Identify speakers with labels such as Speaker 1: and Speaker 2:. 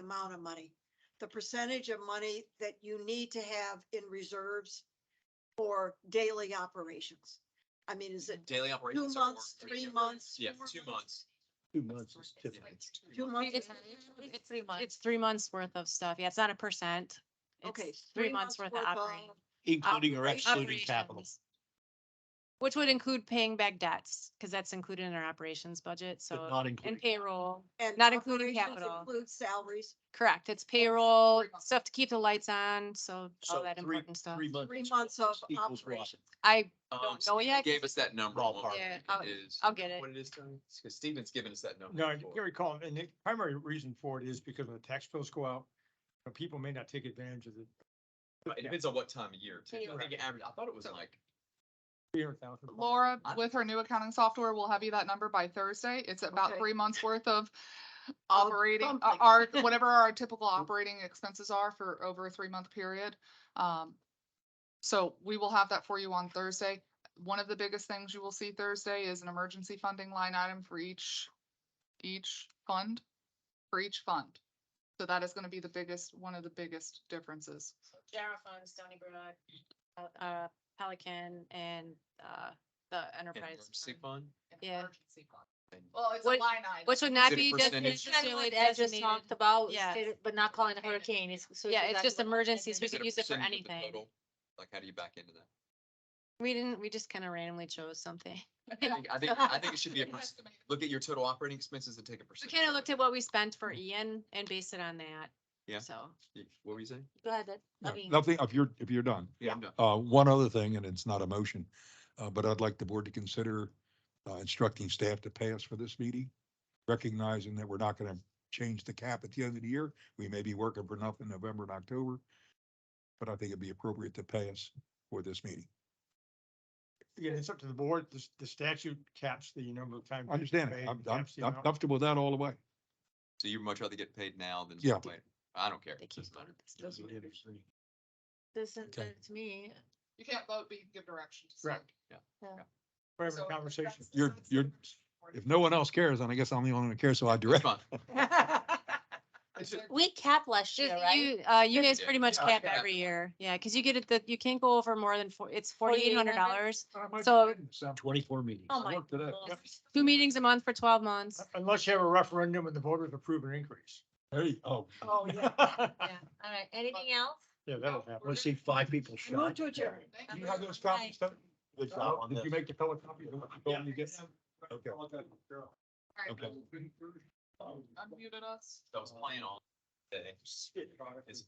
Speaker 1: amount of money. The percentage of money that you need to have in reserves for daily operations. I mean, is it
Speaker 2: Daily
Speaker 1: two
Speaker 2: operations. are more
Speaker 1: months,
Speaker 2: three
Speaker 1: three
Speaker 2: months.
Speaker 1: months?
Speaker 2: Yeah,
Speaker 1: four
Speaker 2: two months.
Speaker 3: Two months is
Speaker 2: Yeah,
Speaker 3: typical.
Speaker 2: it's two
Speaker 1: Two
Speaker 2: months.
Speaker 1: months?
Speaker 4: It's,
Speaker 1: is-
Speaker 4: it's three months, it's three months worth of stuff. Yeah, it's not a percent. It's
Speaker 1: Okay.
Speaker 4: Three months worth of operating.
Speaker 3: Including or
Speaker 1: Operation-
Speaker 3: excluding capital.
Speaker 4: operations, Which would include paying back debts, because that's included in our operations budget,
Speaker 3: but
Speaker 4: so,
Speaker 3: not
Speaker 4: and
Speaker 3: including.
Speaker 4: payroll.
Speaker 1: And
Speaker 4: Not including
Speaker 1: operations
Speaker 4: capital.
Speaker 1: Includes salaries,
Speaker 4: Correct, it's payroll,
Speaker 1: months.
Speaker 4: stuff to keep the lights on, so all
Speaker 3: So
Speaker 4: that
Speaker 3: three-
Speaker 4: important stuff.
Speaker 3: Three
Speaker 1: three
Speaker 3: months.
Speaker 1: months of
Speaker 3: equals what?
Speaker 1: operations.
Speaker 4: I
Speaker 2: Um,
Speaker 4: don't know yet.
Speaker 2: Gave us that number. what
Speaker 3: Ballpark.
Speaker 4: Yeah,
Speaker 2: it
Speaker 4: I'll-
Speaker 2: is.
Speaker 4: I'll get it.
Speaker 2: What it is, Tony? Because Steven's given us that number.
Speaker 5: No, I
Speaker 2: before.
Speaker 5: you recall, and the primary reason for it is because when the tax bills go out, uh, people may not take advantage of the
Speaker 2: But It depends on what time of year too. I think it average, I thought it was
Speaker 6: So-
Speaker 2: like,
Speaker 5: three hundred thousand.
Speaker 6: Laura,
Speaker 2: I-
Speaker 6: with her new accounting software, will have you that number by Thursday. It's about
Speaker 1: Okay.
Speaker 6: three months worth of operating, uh,
Speaker 1: something.
Speaker 6: our, whatever our typical operating expenses are for over a three-month period. Um, so we will have that for you on Thursday. One of the biggest things you will see Thursday is an emergency funding line item for each, each fund, for each fund. So that is gonna be the biggest, one of the biggest differences.
Speaker 4: General fund, Stony Brook, uh, uh, Pelican and, uh, the
Speaker 2: an
Speaker 4: enterprise.
Speaker 2: emergency
Speaker 4: fund,
Speaker 2: fund.
Speaker 4: Yeah.
Speaker 2: And-
Speaker 6: Well, it's
Speaker 4: a What-
Speaker 6: item.
Speaker 4: Which would not
Speaker 2: it
Speaker 4: be
Speaker 2: percentage?
Speaker 4: necessarily
Speaker 7: As just
Speaker 4: designated.
Speaker 7: talked about,
Speaker 4: Yeah.
Speaker 7: instead of- but not calling it a hurricane. It's, so.
Speaker 4: Yeah,
Speaker 7: goes
Speaker 4: it's
Speaker 7: back
Speaker 4: just
Speaker 7: to what-
Speaker 4: emergencies. We
Speaker 2: Is it
Speaker 4: could
Speaker 2: a
Speaker 4: use it for
Speaker 2: percentage of the
Speaker 4: anything.
Speaker 2: total? Like, how do you back into that?
Speaker 4: We didn't, we just kind of randomly chose something.
Speaker 2: I think, I think, I think it should be a percent. Look at your total operating expenses and take a
Speaker 4: We
Speaker 2: percentage.
Speaker 4: kind of
Speaker 2: it.
Speaker 4: looked at what we spent for Ian and based it on that.
Speaker 2: Yeah.
Speaker 4: So,
Speaker 2: You- What were you saying?
Speaker 7: Go ahead, that- I mean,
Speaker 8: Nothing, if you're, if you're done.
Speaker 2: Yeah, no.
Speaker 8: Uh, one other thing, and it's not a motion, uh, but I'd like the board to consider uh, instructing staff to pay us for this meeting, recognizing that we're not going to change the cap at the end of the year. We may be working for nothing November and October, but I think it'd be appropriate to pay us for this meeting.
Speaker 5: Again, it's up to the board. The, s- the statute caps the number of times.
Speaker 8: I understand
Speaker 5: paid,
Speaker 8: it. I'm, I'm
Speaker 5: caps the
Speaker 8: I'm
Speaker 5: amount.
Speaker 8: comfortable with that all the way.
Speaker 2: So you'd much rather get paid now than
Speaker 8: Yeah.
Speaker 2: later? I don't care.
Speaker 4: They keep
Speaker 2: Doesn't
Speaker 4: going
Speaker 2: matter.
Speaker 4: with this stuff.
Speaker 7: doesn't,
Speaker 8: Okay.
Speaker 7: to me,
Speaker 6: You can't vote, but you can give directions.
Speaker 5: Correct. We're having a
Speaker 6: So
Speaker 5: conversation.
Speaker 6: that's-
Speaker 8: You're-
Speaker 6: that's the
Speaker 8: you're-
Speaker 6: direction for
Speaker 8: If
Speaker 6: it.
Speaker 8: no one else cares, then I guess I'm the only one who cares, so I
Speaker 2: It's
Speaker 8: direct.
Speaker 2: fine.
Speaker 5: It's a-
Speaker 7: we capped last year,
Speaker 4: Just
Speaker 7: right?
Speaker 4: you, uh, you guys
Speaker 2: Yeah.
Speaker 4: pretty much
Speaker 2: Yeah.
Speaker 4: cap
Speaker 2: Yeah.
Speaker 4: every year. Yeah, because you get it, that you can't go over more than four, it's forty-eight hundred
Speaker 7: $4,800?
Speaker 4: dollars.
Speaker 5: I might
Speaker 4: So-
Speaker 5: be so.
Speaker 3: Twenty-four meetings.
Speaker 7: Oh my
Speaker 5: Yep.
Speaker 4: Two meetings a month for twelve months.
Speaker 5: Unless you have a referendum and the voters approve an increase.
Speaker 3: There you go.
Speaker 5: Oh, yeah.
Speaker 7: Yeah, all right, anything else?
Speaker 5: Yeah, that'll happen.
Speaker 3: Let's see five people
Speaker 1: I Move
Speaker 3: shot.
Speaker 1: to adjourn.
Speaker 6: Thank
Speaker 5: You have those copies, don't you? Did you make the color copy?
Speaker 3: Yeah. Okay.
Speaker 6: All right,
Speaker 3: Okay.
Speaker 6: Unmuted us.
Speaker 2: That was playing all day. It's